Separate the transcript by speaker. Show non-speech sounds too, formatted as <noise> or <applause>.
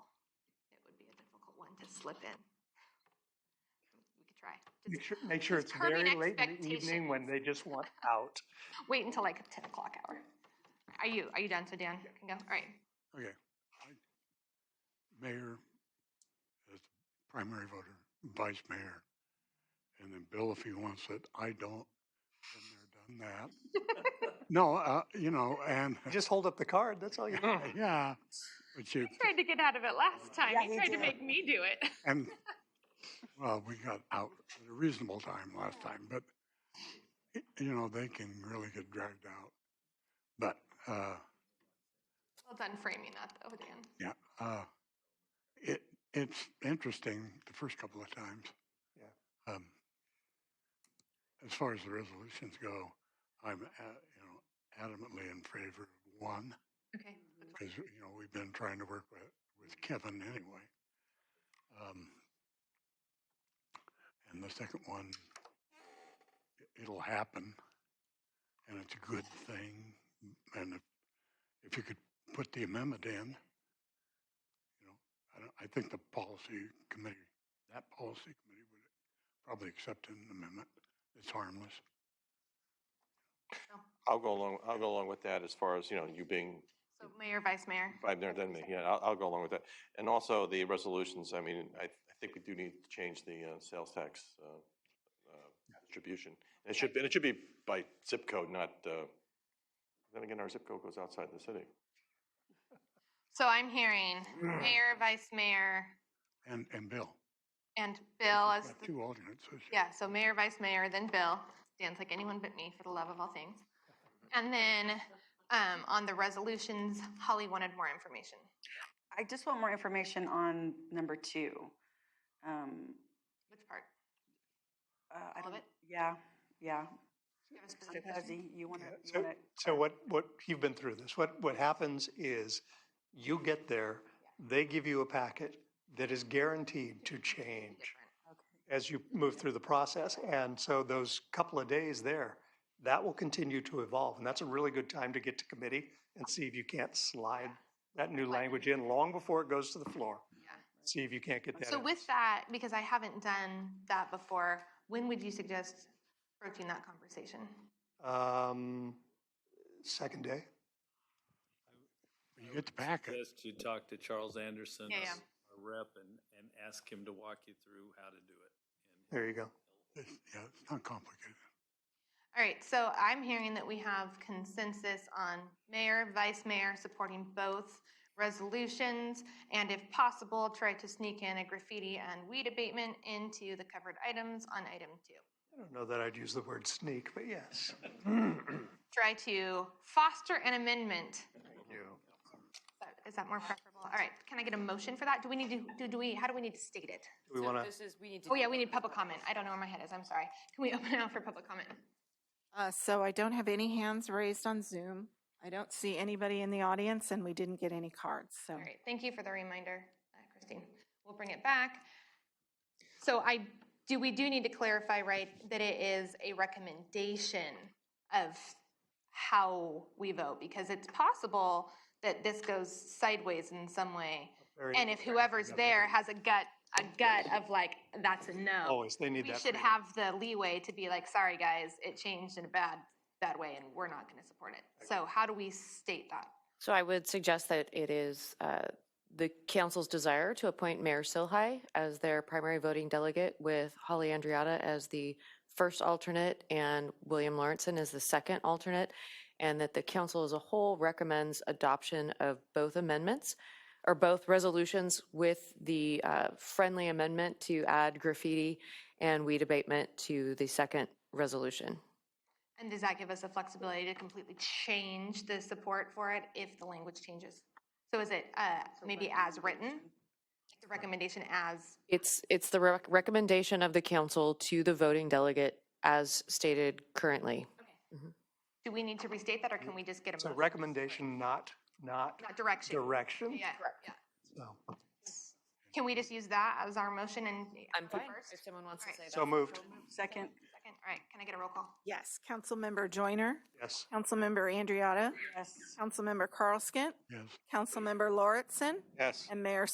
Speaker 1: just slip in. We could try.
Speaker 2: Make
Speaker 1: Just
Speaker 2: sure, make sure
Speaker 1: Just
Speaker 2: it's
Speaker 1: curbing
Speaker 2: very late in the evening when they <laughs> just want out.
Speaker 1: wait until like ten o'clock hour. Are you, are you done? So Dan can go? All right.
Speaker 3: Okay. I- Mayor as primary voter, vice mayor, and then Bill if he wants it. I don't. Been there, done that. No, uh, you know, and, <laughs>
Speaker 2: Just hold up the card, that's <laughs> all you need.
Speaker 3: yeah, but you,
Speaker 1: He tried to get out of it last time.
Speaker 4: Yeah,
Speaker 1: He
Speaker 4: he
Speaker 1: tried to
Speaker 4: did.
Speaker 1: make me do it.
Speaker 3: and, well, we got out at a reasonable time last time, but, y- you know, they can really get dragged out. But, uh,
Speaker 1: Well done framing that though, Dan.
Speaker 3: Yeah, uh, it, it's interesting the first couple of times. Yeah. Um, as far as the resolutions go, I'm, a- you know, adamantly in favor of one,
Speaker 1: Okay.
Speaker 3: because, you know, we've been trying to work with, with Kevin anyway. Um, and the second one, i- it'll happen, and it's a good thing, and if, if you could put the amendment in, you know, I don't, I think the policy committee, that policy committee would probably accept an amendment that's harmless.
Speaker 5: I'll go along, I'll go along with that as far as, you know, you being,
Speaker 1: So mayor, vice mayor.
Speaker 5: I've never done me, yeah, I'll, I'll go along with that. And also the resolutions, I mean, I, I think we do need to change the, uh, sales tax, uh, uh, distribution. It should, be- and it should be by zip code, not, uh, then again, our zip code goes outside the city.
Speaker 1: So I'm hearing mayor, vice mayor,
Speaker 3: And, and Bill.
Speaker 1: and Bill
Speaker 3: We've
Speaker 1: as
Speaker 3: got
Speaker 1: the,
Speaker 3: Two alternates. so she-
Speaker 1: yeah, so mayor, vice mayor, then Bill. Dan's like anyone but me for the love of all things. And then um, on the resolutions, Holly wanted more information.
Speaker 4: I just want more information on number two. Um,
Speaker 1: Which part?
Speaker 4: uh, I
Speaker 1: All of
Speaker 4: don't-
Speaker 1: it?
Speaker 4: Yeah, yeah.
Speaker 1: Do you have a
Speaker 4: So
Speaker 1: specific question?
Speaker 4: Pezzi, you want
Speaker 2: Yeah,
Speaker 4: to, you
Speaker 2: so-
Speaker 4: want to?
Speaker 2: So what, what, you've been through this. What, what happens is you get there, they give you a packet that is guaranteed <laughs> to change
Speaker 1: Different.
Speaker 2: as you move through the process. And so those couple of days there, that will continue to evolve. And that's a really good time to get to committee and see if you can't slide that new language in long before it goes to the floor.
Speaker 1: Yeah.
Speaker 2: See if you can't get that.
Speaker 1: So
Speaker 2: in.
Speaker 1: with that, because I haven't done that before, when would you suggest approaching that conversation?
Speaker 2: Um, second day?
Speaker 3: When you get the packet,
Speaker 6: Suggest you talk to Charles Anderson,
Speaker 1: Yeah, yeah.
Speaker 6: our rep, and, and ask him to walk you through how to do it.
Speaker 2: There you go.
Speaker 3: it's, yeah, it's not complicated.
Speaker 1: All right, so I'm hearing that we have consensus on mayor, vice mayor supporting both resolutions, and if possible, try to sneak in a graffiti and weed abatement into the covered items on item two.
Speaker 2: I don't know that I'd use the word sneak, but yes.
Speaker 1: Try to foster an amendment.
Speaker 2: you.
Speaker 1: Is that more preferable? All right, can I get a motion for that? Do we need to, do, do we, how do we need to state it?
Speaker 2: Do we want to?
Speaker 7: This is, we need to.
Speaker 1: Oh, yeah, we need public comment. I don't know where my head is, I'm sorry. Can we open it up for public comment?
Speaker 8: Uh, so I don't have any hands raised on Zoom. I don't see anybody in the audience and we didn't get any cards, so.
Speaker 1: All right, thank you for the reminder, uh, Christine. We'll bring it back. So I, do, we do need to clarify, right, that it is a recommendation of how we vote? Because it's possible that this goes sideways in some way.
Speaker 2: Very
Speaker 1: And if whoever's there has a gut, a gut of like, that's a no.
Speaker 2: Always, they need
Speaker 1: We
Speaker 2: that.
Speaker 1: should
Speaker 2: freedom.
Speaker 1: have the leeway to be like, sorry, guys, it changed in a bad, bad way and we're not gonna support it. So how do we state that?
Speaker 7: So I would suggest that it is uh, the council's desire to appoint Mayor Silhai as their primary voting delegate with Holly Andriata as the first alternate and William Lawrenson as the second alternate, and that the council as a whole recommends adoption of both amendments or both resolutions with the uh, friendly amendment to add graffiti and weed abatement to the second resolution.
Speaker 1: And does that give us the flexibility to completely change the support for it if the language changes? So is it uh, maybe as written, the recommendation as,
Speaker 7: It's, it's the rec- recommendation of the council to the voting delegate as stated currently.
Speaker 1: do we need to restate that or can we just get a?
Speaker 2: It's a
Speaker 1: motion?
Speaker 2: recommendation, not, not
Speaker 1: Not direction.
Speaker 2: direction.
Speaker 1: Yeah, yeah.
Speaker 2: So-
Speaker 1: Can we just use that as our motion and?
Speaker 7: I'm fine,
Speaker 1: First?
Speaker 7: if someone wants to
Speaker 1: Alright.
Speaker 7: say that.
Speaker 2: So moved,
Speaker 4: Second,
Speaker 1: Second, all right, can I get a roll call?
Speaker 8: Yes, Councilmember Joyner,
Speaker 2: yes.
Speaker 8: Councilmember Andriotta,
Speaker 4: yes.
Speaker 8: Councilmember Carlskent,
Speaker 3: Yes.
Speaker 8: Councilmember Lauritsen,
Speaker 5: Yes.
Speaker 8: and Mayor